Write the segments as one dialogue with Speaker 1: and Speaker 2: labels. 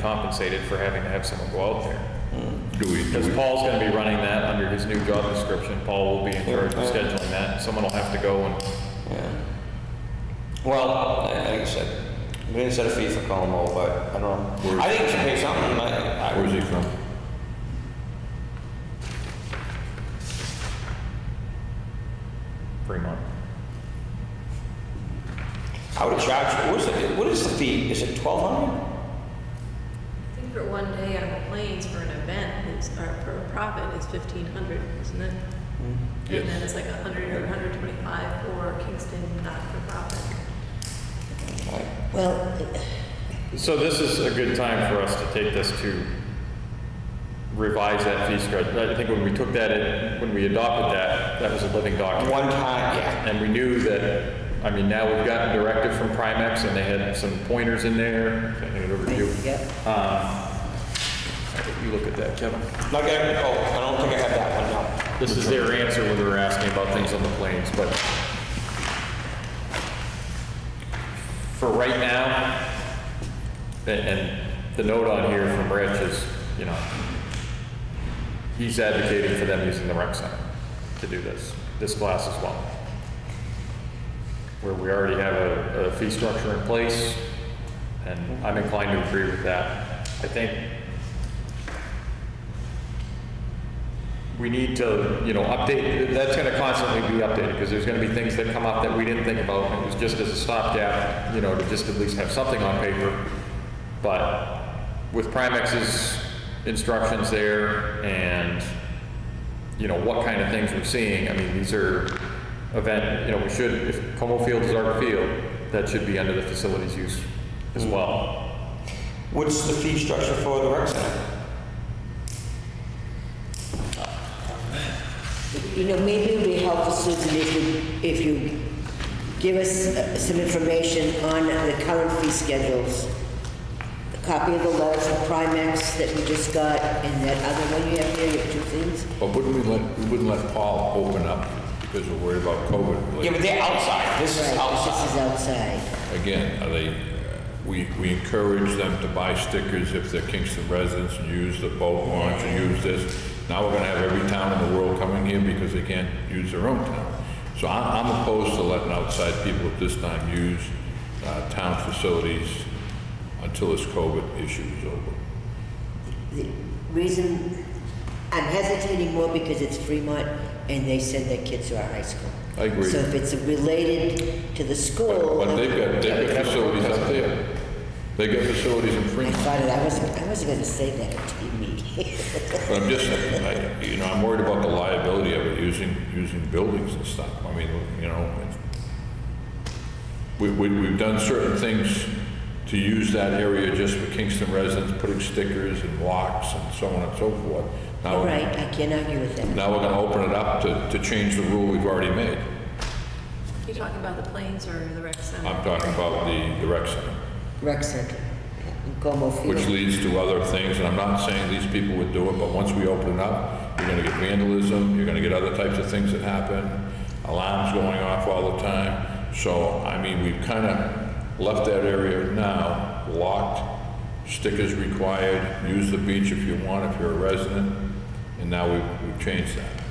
Speaker 1: compensated for having to have someone go out there.
Speaker 2: Do we, do
Speaker 1: Because
Speaker 2: we,
Speaker 1: Paul's gonna be running that under his new job description. Paul will be in charge of
Speaker 3: Yeah.
Speaker 1: scheduling that. Someone will have to go and,
Speaker 3: Yeah. Well, I- like I said, we didn't set a fee for Colmo, but I don't know. I think you should pay something. I, I,
Speaker 2: where's he from?
Speaker 1: Fremont.
Speaker 3: I would charge. What is it? What is the fee? Is it twelve hundred?
Speaker 4: I think for one day on the planes for an event, it's, or for a profit, is fifteen hundred, isn't it?
Speaker 3: Mm-hmm.
Speaker 4: And then it's like a hundred or hundred twenty-five for Kingston not-for-profit.
Speaker 5: Well,
Speaker 1: So this is a good time for us to take this to revise that fee schedule. I think when we took that, in- when we adopted that, that was a living document.
Speaker 3: One time, yeah.
Speaker 1: And we knew that, I mean, now we've gotten directive from Primex, and they had some pointers in there, I think it over to you. Um,
Speaker 5: yep.
Speaker 1: You look at that, Kevin.
Speaker 3: Not getting, oh, I don't think I have that one, no.
Speaker 1: This is their answer when we were asking about things on the planes, but for right now, a- and the note on here from Rich is, you know, he's advocating for them using the rec center to do this, this class as well. Where we already have a, a fee structure in place, and I'm inclined to agree with that. I think we need to, you know, update, that's gonna constantly be updated, because there's gonna be things that come up that we didn't think about, and it was just as a stopgap, you know, to just at least have something on paper. But with Primex's instructions there, and, you know, what kind of things we're seeing, I mean, these are event, you know, we should, if Como Field is our field, that should be under the facilities use as well.
Speaker 3: What's the fee structure for the rec center?
Speaker 5: You know, maybe it would be helpful, Susan, if you, if you give us uh, some information on the current fee schedules. A copy of the letter from Primex that we just got, and that other one you have here, your two things.
Speaker 2: But wouldn't we let, we wouldn't let Paul open up because we're worried about COVID.
Speaker 3: Yeah, but they're outside. This is
Speaker 5: Right, This is
Speaker 3: outside.
Speaker 5: outside.
Speaker 2: Again, are they, we, we encourage them to buy stickers if they're Kingston residents and use the boat launch and use this. Now we're gonna have every town in the world coming here because they can't use their own town. So I, I'm opposed to letting outside people at this time use, uh, town facilities until this COVID issue is over.
Speaker 5: The reason, I'm hesitating more because it's Fremont, and they send their kids to our high school.
Speaker 2: I agree.
Speaker 5: So if it's related to the school.
Speaker 2: But they've got, they've
Speaker 1: Kevin-
Speaker 2: got facilities up there. They got facilities in
Speaker 5: I
Speaker 2: Fremont.
Speaker 5: thought it, I wasn't, I wasn't gonna say that at TV.
Speaker 2: But I'm just, I, you know, I'm worried about the liability of it using, using buildings and stuff. I mean, you know, it- we, we, we've done certain things to use that area just for Kingston residents, putting stickers and locks and so on and so forth. Now,
Speaker 5: Right, I can't argue with that.
Speaker 2: now we're gonna open it up to, to change the rule we've already made.
Speaker 4: You talking about the planes or the rec center?
Speaker 2: I'm talking about the, the rec center.
Speaker 5: rec center in Como Field.
Speaker 2: which leads to other things, and I'm not saying these people would do it, but once we open it up, you're gonna get vandalism, you're gonna get other types of things that happen, alarms going off all the time. So, I mean, we've kinda left that area now locked, stickers required, use the beach if you want, if you're a resident, and now we've, we've changed that.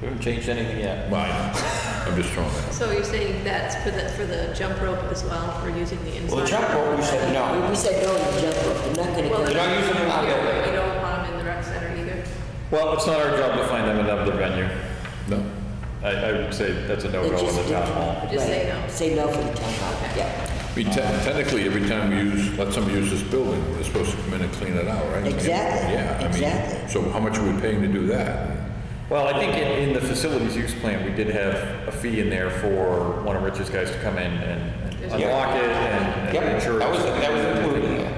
Speaker 3: We haven't changed anything yet.
Speaker 2: Mine, I'm just throwing that.
Speaker 4: So you're saying that's for the, for the jump rope as well, for using the inside?
Speaker 3: Well, the jump rope, we said no.
Speaker 5: We- We said no to jump rope, we're not gonna
Speaker 4: Well,
Speaker 5: go.
Speaker 3: They're not using them out
Speaker 4: you
Speaker 3: there.
Speaker 4: don't- You don't want them in the rec center either?
Speaker 1: Well, it's not our job to find them another venue.
Speaker 2: No,
Speaker 1: I, I would say that's a
Speaker 5: They
Speaker 1: no-go in
Speaker 5: just
Speaker 1: the
Speaker 5: did-
Speaker 1: town hall.
Speaker 4: Just say
Speaker 5: right,
Speaker 4: no.
Speaker 5: Say no for the town hall, yeah.
Speaker 2: I mean, te- technically, every time we use, let somebody use this building, they're supposed to come in and clean it out, right?
Speaker 5: Exactly,
Speaker 2: Yeah, I mean,
Speaker 5: exactly.
Speaker 2: So how much are we paying to do that?
Speaker 1: Well, I think in, in the facilities use plan, we did have a fee in there for one of Rich's guys to come in and and
Speaker 3: Yeah.
Speaker 1: unlock it and and
Speaker 3: Yep,
Speaker 1: ensure.
Speaker 3: that was,
Speaker 1: it's-
Speaker 3: that was included in there.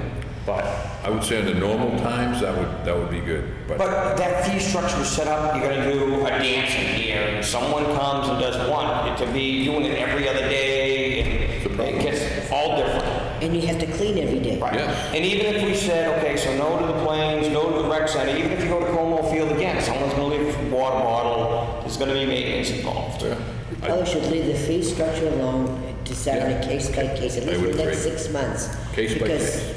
Speaker 1: But,
Speaker 2: I would say under normal times, that would, that would be good, but
Speaker 3: But that fee structure was set up, you're gonna do a dance in here, and someone comes and does one, it could be doing it every other day, and it gets all different.
Speaker 5: And you have to clean every day.
Speaker 3: Right.
Speaker 2: Yes.
Speaker 3: And even if we said, okay, so no to the planes, no to the rec center, even if you go to Como Field again, someone's gonna leave a water bottle, there's gonna be maintenance involved.
Speaker 2: yeah,
Speaker 5: Probably should leave the fee structure alone, decide on a case by case, at least for
Speaker 2: would
Speaker 5: the next
Speaker 2: agree.
Speaker 5: six months.
Speaker 2: Case by
Speaker 5: because
Speaker 2: case.